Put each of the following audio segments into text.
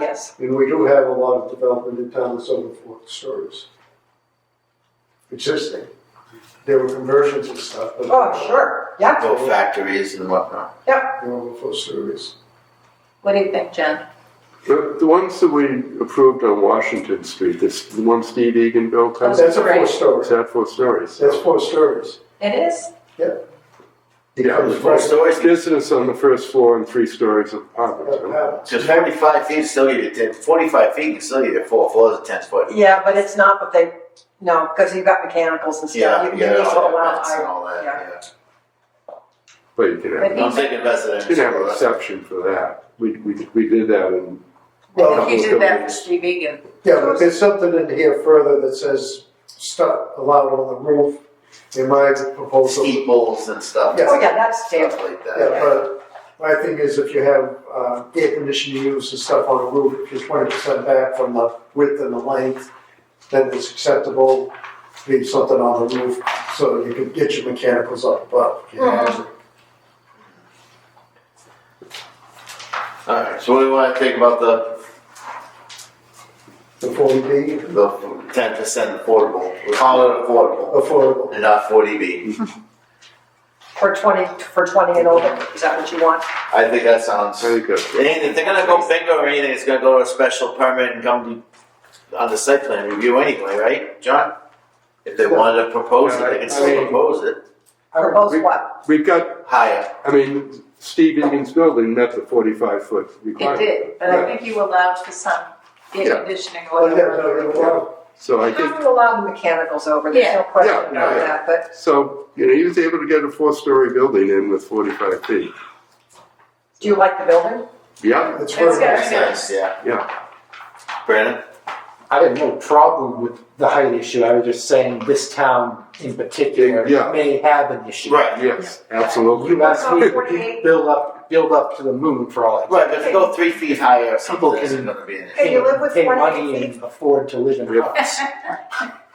yes. And we do have a lot of development in town that's over four stories. Existing. There were conversions and stuff, but. Oh, sure, yeah. Little factories and whatnot. They're over four stories. What do you think, Jen? The, the ones that we approved on Washington Street, this, the one Steve Egan built, Those- is That's a Right. four story. that four stories? That's four stories. It is? Yeah, Because the Four stories, Business on the first floor and three stories of apartments. right huh? now- because forty-five feet is still your, ten- forty-five feet can still your four floors of ten foot. Yeah, but it's not what they, no, because you've got mechanicals and stuff. Yeah, You- you you got need to all allow that vents and I- all that, yeah. yeah. But you can have, But I'm thinking you can have an residential. uh, exception for that. We, we, we did that in, I Well, think you did that for Steve Egan. yeah, but there's something in here further that says stuff allowed on the roof in my proposal. Yeah, Steeples and stuff. Yeah. Oh, yeah, that's Stuff standard. like that. but my thing is if you have, uh, air conditioning use and stuff on a roof, if you're twenty percent back from the width and the length, then it's acceptable, leave something on the roof so you can get your mechanicals up above. you know? Uh-huh. Alright, so what do you wanna think about the, The forty B, the ten percent affordable? We call it affordable affordable, and not forty B. For twenty, for twenty and older, is that what you want? I think that sounds. I think that's. And if they're gonna go big or anything, it's gonna go to a special permit and come on the site plan review anyway, right, John? If they wanted to propose it, they can Yeah, I- I still mean- propose it For both we- what? We've got, higher. I mean, Steve Egan's building met the forty-five foot It requirement. did, but I Yeah. think you allowed for some Yeah. Oh, air conditioning Oh, or well, yeah, no, whatever. you know, well, So I You think, have to allow the mechanicals over, there's no Yeah. question Yeah, about yeah. that, but so, you know, he was able to get a four-story building in with forty-five feet. do you like the building? Yeah, it's It's worth gotta it. That's nice, yeah. yeah, Brandon? I have no problem with the height issue, I was just saying this town in particular Yeah. may have an issue. Right. yes, absolutely. You ask me, Oh, 48. build up, build up to the moon for all I care. Right, but if you go three feet higher, or something, People it's can- gonna be an issue. Hey, you live with Pay 48 money and afford to live in Yep. house.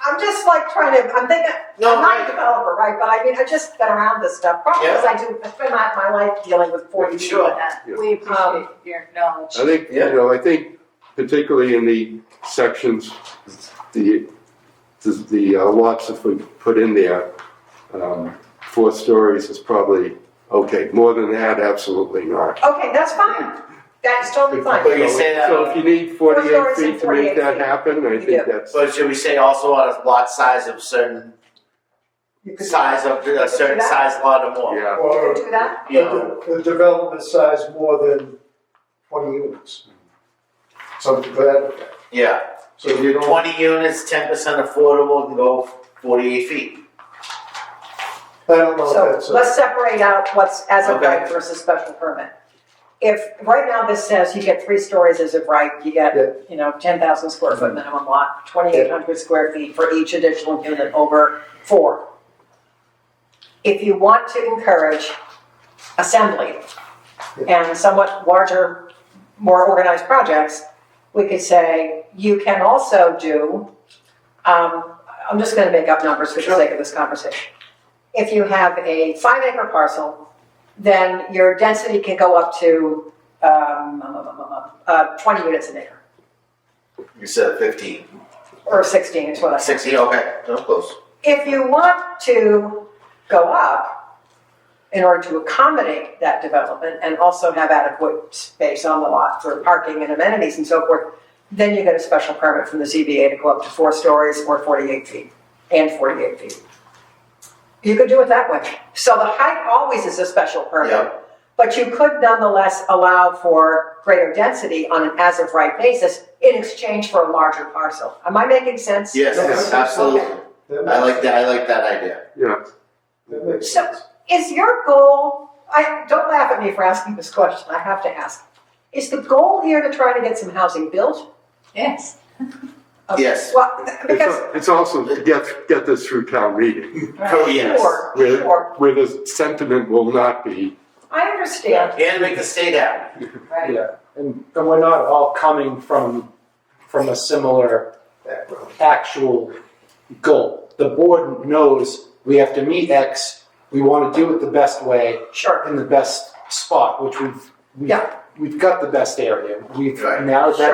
I'm just like trying to, I'm thinking, No, I'm not I- a developer, right, but I mean, I've just been around this stuff, probably because I do, I spend my, my life dealing with forty Sure. people. Yeah. We appreciate your knowledge. I think, you Yeah. know, I think particularly in the sections, the, the, the uh, lots that we put in there, um, four stories is probably, okay, more than that, absolutely not. Okay, that's fine, that's totally fine. But you say that- So if you need Four forty-eight stories and feet to make 48 that feet. happen, I Yeah. think that's, But should we say also on a lot size of certain You could- size of, a certain size lot or more? yeah. You Or- could do that? You know, The, the development size more than twenty units. Something to that, effect. yeah. so So if you you're don't, twenty units, ten percent affordable, can go forty-eight feet. I don't know if that's So a. let's separate out what's as of Okay. right versus special permit. If, right now this says you get three stories as of right, you get, Yeah. Mm-hmm. you know, ten thousand square foot minimum lot, twenty-eight hundred square feet for each additional unit over four. If you want to encourage assembly and somewhat larger, more organized projects, we could say, you can also do, um, I'm just gonna make up numbers for the Sure. sake of this conversation if you have a five acre parcel, then your density can go up to, um, uh, twenty units an acre, You said fifteen. or sixteen is what I said. Sixteen, okay, that was close. If you want to go up in order to accommodate that development and also have adequate space on the lot for parking and amenities and so forth, then you get a special permit from the ZBA to go up to four stories or forty-eight feet, and forty-eight feet. You could do it that way. So the height always is a special Yeah. permit. But you could nonetheless allow for greater density on an as-of-right basis in exchange for a larger parcel. Am I making sense? Yes, Okay. absolutely. that I makes- like that, I like that idea. That makes So- sense. Is your goal, I, don't laugh at me for asking this question, I have to ask. Is the goal here to try to get some housing built? Yes. Okay, Yes. Well, It's, because, al- it's also to get, get this through town meeting, Oh, yes. sure, where, sure, where the sentiment will not be, I understand, And make the state happy. Right. Yeah, and, and we're not all coming from, from a similar uh, Background. actual goal. The board knows we have to meet X, we wanna do it the best way, sure. in the best spot, which we've, we've, Yeah. we've got the best area. We've Right. narrowed that